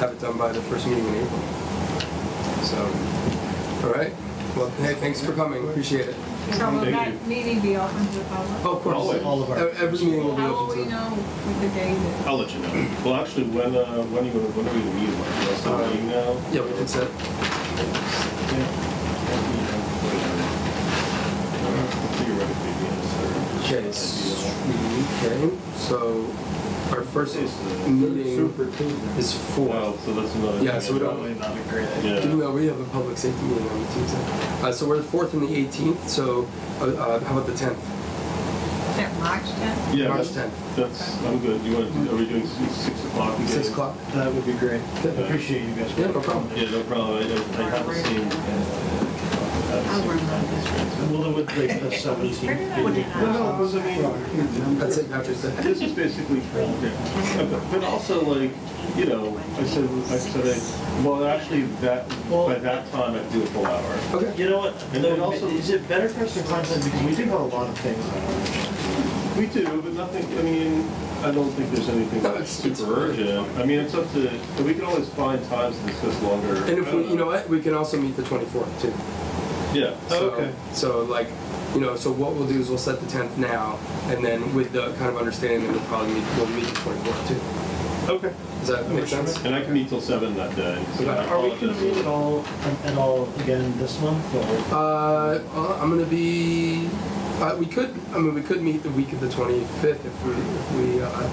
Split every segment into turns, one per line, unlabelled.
have it done by the first meeting in April. So, all right. Well, hey, thanks for coming. Appreciate it.
So will
Thank
that
you.
meeting be open to the public?
Oh, of course.
Always.
All of our-
E- Every meeting will be
How will
open
we
to.
know with the date? that-
I'll let you know. Well, actually, when, uh, when are you, when are you meeting? Like, you also
Uh,
meeting now?
Yeah, we can set.
Theoretically, yes. or-
Okay, s-
uh,
okay. So our first
It's the
meeting is
Well,
four.
so that's another.
Yeah, so we don't-
Probably not a great idea.
Yeah.
Do know we have a public safety meeting on the Tuesday? Uh, so we're the fourth and the 18th. So uh, uh, how about the 10th?
Is that March 10th?
Yeah,
March
that's-
10th.
That's, I'm good. You want, to? are we doing six six o'clock? again?
Six o'clock.
That would be great.
Yeah.
Appreciate you guys.
Yeah, no problem.
Yeah, no problem. I, I I haven't seen.
I'll work on
Well, it would make us so easy.
Figure that one out.
No, no, it was, I mean,
That's it. Patrick's Day.
This is basically, yeah. but but also like, you know, I said, I said, I- well, actually, that, by that time, I'd do a full hour.
Okay.
You know what,
And then also-
is it better for us to contact, because we do have a lot of things on our
We do, but nothing, I mean, I don't think there's anything
No,
that's
it's- it's-
super urgent. I mean, it's up to, but we can always find times to discuss longer.
And if we, you know what, we can also meet the 24th too.
Yeah.
So,
Oh,
So like, you know, so what we'll do is we'll set the 10th now, and then with the kind of understanding that we'll probably meet, we'll meet the 24th too.
Okay.
Does that make sense?
And I can meet till seven that day. so I
Are we gonna
apologize.
meet at all, at all again this month, or?
Uh, uh, I'm gonna be. Uh, we could. I mean, we could meet the week of the 25th if we. If we uh,
Uh-huh.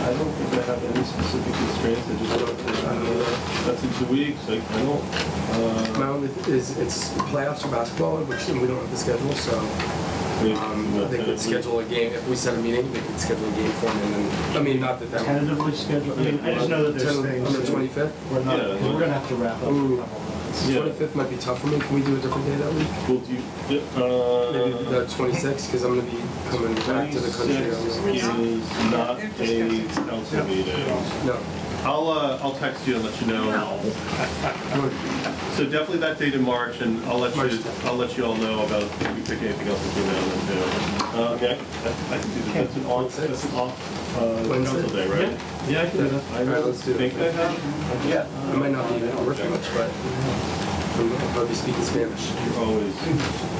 I don't think I have any specific constraints, I just don't, uh, that's in two weeks, like, I don't,
my
uh,
only th- is it's playoffs for basketball, which we don't have the schedule, so
we-
um, they could schedule a game if we set a meeting. They could schedule a game for me, and then I mean, not that that.
Tentatively scheduled, I mean, I just know that there's
10
things.
on the
that
25th.
We're not,
Yeah.
we're gonna have to wrap up. a
Ooh.
couple of those.
Yeah.
25th might be tough for me. Can we do a different day that week?
Well, do you, uh.
Maybe the 26th, because I'm gonna be coming back to the country. on-
26 is not
They're
a
discussing.
council meeting.
No.
I'll, uh, I'll text you and let you know. So definitely that date in March, and I'll let
March
you,
10th.
I'll let you all know about if you pick anything else between now and then too. Uh, yeah, I- I can do that, that's an off,
Wednesday?
that's an off, uh, council
Wednesday?
day, right? Yeah, I can do that. I
All right, let's do it.
think I have,
Yeah, I might not be able to work much, but I'm- I'll probably be speaking Spanish.
you're always,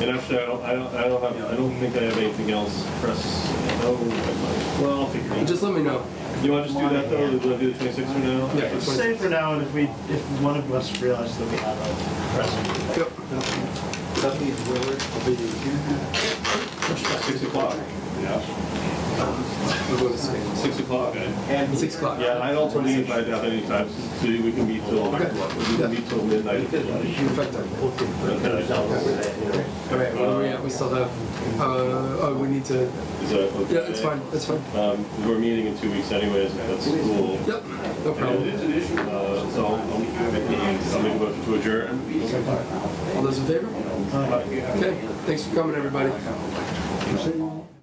and actually, I don't, I don't, I don't have, I don't think I have anything else press, oh, I might. well, I'll figure it out.
Just let me know.
You wanna just do that though, do I do the twenty-sixth for now?
Yeah.
Let's Say for now, and if we, if one of us realizes that we have a pressing.
Yep.
Six o'clock, yeah,
We're going to Spain.
six o'clock, eh?
Six o'clock.
Yeah, I don't believe I'd have any time, so we can meet till, we
Yeah.
can meet till midnight. if you like.
Perfect. All right, what do we at? We still have, uh, oh, we need to,
Is that okay?
yeah, it's fine, it's fine.
Um, we're meeting in two weeks anyways, that's cool.
Yep, no
And it
problem.
is an issue, uh, so I'll, I'll make a motion to adjourn.
All those in favor?
Bye.
Okay, thanks for coming, everybody.
Thank you.